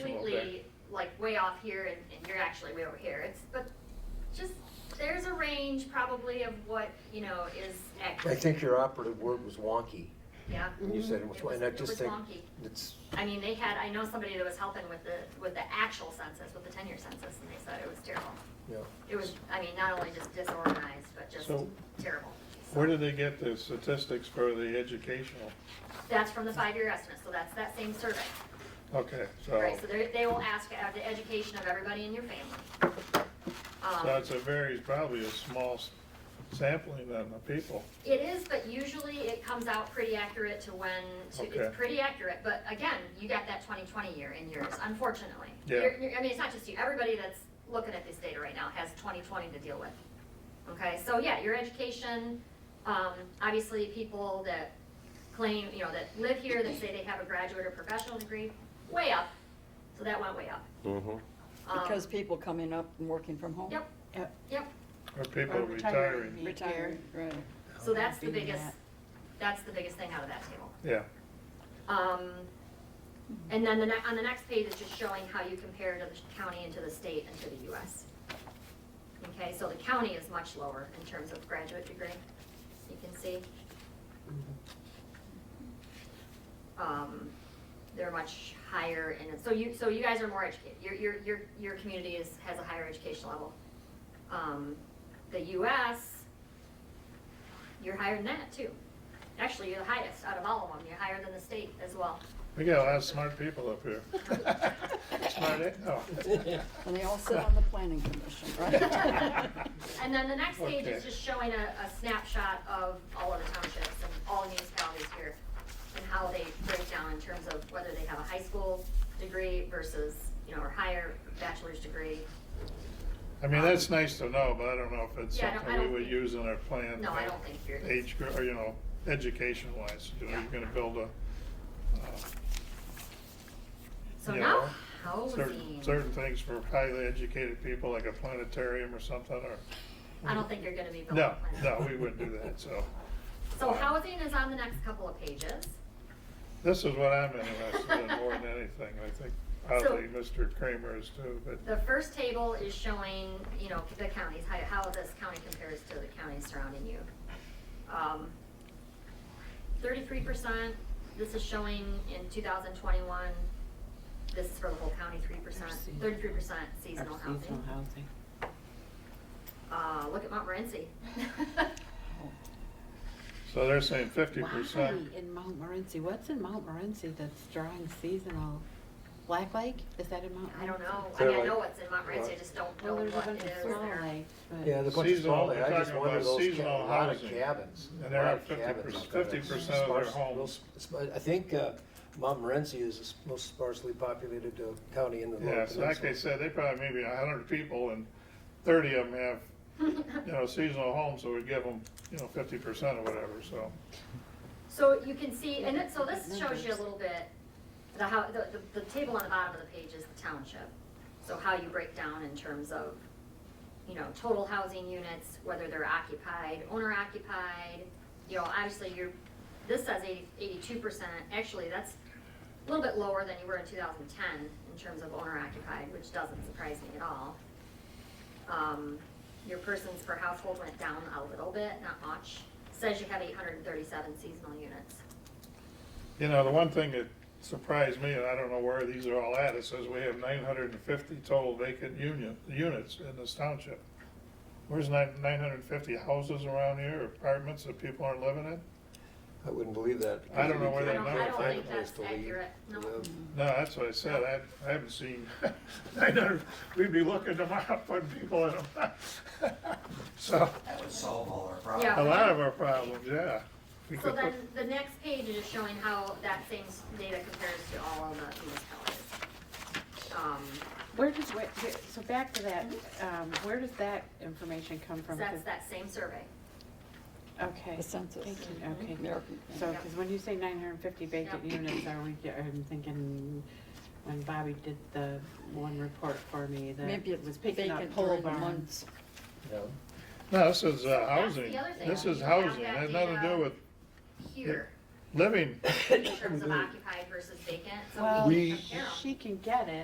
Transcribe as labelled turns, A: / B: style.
A: like way off here and, and you're actually way over here. It's, but just, there's a range probably of what, you know, is
B: I
A: accurate,
B: think your operative word was wonky.
A: yeah.
B: You said it was,
A: It was-
B: and I
A: it
B: just
A: was
B: think
A: wonky.
B: it's,
A: I mean, they had, I know somebody that was helping with the, with the actual census, with the ten-year census, and they said it was terrible.
B: yeah.
A: It was, I mean, not only just disorganized, but just
C: So-
A: terrible. So
C: Where did they get the statistics for the educational?
A: That's from the five-year estimate, so that's that same survey,
C: Okay, so,
A: right? So they, they will ask uh, the education of everybody in your family. Um,
C: so it's a very, probably a small s- sampling then of people.
A: It is, but usually it comes out pretty accurate to when, to,
C: Okay.
A: it's pretty accurate, but again, you got that twenty twenty year in yours, unfortunately.
C: Yeah.
A: You're- you're- I mean, it's not just you, everybody that's looking at this data right now has twenty twenty to deal with. Okay, so yeah, your education, um, obviously people that claim, you know, that live here, that say they have a graduate or professional degree, way up, so that went way up.
C: Mm-hmm.
A: Um,
D: Because people coming up and working from home.
A: Yep.
D: Yep.
C: Or people
E: Or
C: retiring.
E: retiring.
D: Retired, right.
A: So that's the
E: Being
A: biggest,
E: that.
A: that's the biggest thing out of that table.
C: Yeah,
A: Um, and then the ne- on the next page is just showing how you compare to the county and to the state and to the US. Okay, so the county is much lower in terms of graduate degree, you can see. Um, they're much higher in, it. so you, so you guys are more educated, your, your, your, your community is, has a higher education level. Um, the US, you're higher than that too. Actually, you're the highest out of all of them, you're higher than the state as well.
C: we got a lot of smart people up here. Smart, eh? no.
D: And they all sit on the planning commission, right?
A: And then the next page is
C: Okay.
A: just showing a, a snapshot of all of the townships and all municipalities here and how they break down in terms of whether they have a high school degree versus, you know, or higher bachelor's degree.
C: I mean, that's nice to know, but I don't know if it's
A: Yeah, I don't- I
C: something we
A: don't
C: would
A: think-
C: use in our plan.
A: No, I
C: for
A: don't think you're-
C: Age, gr- or, you know, education wise, you know,
A: Yeah.
C: you're gonna build a, uh,
A: So
C: Yeah.
A: now,
C: Certain,
A: housing.
C: certain things for highly educated people, like a planetarium or something, or,
A: I don't think you're gonna be building
C: no,
A: a plan.
C: no, we wouldn't do that, so. Uh,
A: So housing is on the next couple of pages.
C: This is what I'm interested in more than anything, I think, probably Mr. Kramer is too, but,
A: The first table is showing, you know, the counties, how, how this county compares to the counties surrounding you. Um, Thirty-three percent, this is showing in two thousand twenty-one, this is for the whole county, three percent, thirty-three percent seasonal
E: Our seasonal
A: housing.
E: housing.
A: Uh, look at Montmorency.
C: so they're saying fifty percent.
E: Why in Mount Morency? What's in Mount Morency that's drawing seasonal? Black Lake? Is that in Mount?
A: I don't know, I
B: They're
A: mean, I
B: like-
A: know what's in Montmorency, I just don't know
E: Well, there's a
A: what it
E: bunch
A: is
E: of small
A: there.
E: lakes, but.
B: Yeah, the bunch of
C: Seasonal,
B: small,
C: we're
B: I just
C: talking
B: wonder
C: about
B: those, ca-
C: seasonal
B: a lot of
C: housing.
B: cabins, a
C: And they're
B: lot
C: at
B: of
C: 50%
B: cabins. up there.
C: 50% of their
B: Sparse-
C: homes.
B: real sp- sp- I think uh, Montmorency is the s- most sparsely populated uh, county in the
C: Yeah,
B: Lower
C: so like I
B: Peninsula.
C: said, they probably maybe a hundred people and thirty of them have, you know, seasonal homes, so we give them, you know, fifty percent or whatever, so.
A: So you can see, and it, so this shows you a little bit, the how, the, the, the table on the bottom of the page is the township. So how you break down in terms of, you know, total housing units, whether they're occupied, owner occupied, you know, obviously you're, this says eighty, eighty-two percent, actually, that's a little bit lower than you were in two thousand ten in terms of owner occupied, which doesn't surprise me at all. Um, your persons per household went down a little bit, not much. Says you have eight hundred and thirty-seven seasonal units.
C: You know, the one thing that surprised me, and I don't know where these are all at, it says we have nine hundred and fifty total vacant union, units in this township. Where's nine, nine hundred and fifty houses around here, apartments that people aren't living in?
B: I wouldn't believe that.
C: I don't know where
A: I
C: they
A: don't,
C: number
A: I don't
C: five
A: think that's accurate, no.
C: No, that's what I said, I, I haven't seen, nine hundred, we'd be looking tomorrow, putting people in them. So,
F: That would solve all our problems.
A: Yeah.
C: a lot of our problems, yeah. We
A: So
C: could
A: then,
C: put-
A: the next page is just showing how that same s- data compares to all of the municipalities. Um,
E: Where does, where- where- so back to that, um, where does that information come
A: so
E: from?
A: that's that same survey.
E: Okay.
D: The census.
E: Thank you. Okay.
D: American.
E: So, because when you say nine hundred and fifty vacant units, I we, I'm thinking, when Bobby did the one report for me, that
D: Maybe it
E: was
D: was
E: picking
D: vacant
E: up pole
D: during the
E: barns.
D: months.
C: No, this is uh,
A: that's the
C: housing,
A: other thing.
C: this is
A: You have
C: housing, it
A: that
C: has nothing to
A: data.
C: do with
A: Here,
C: living.
A: in terms of occupied versus vacant, so
E: Well,
A: we
B: We-
A: can compare 'em.
E: She can get it,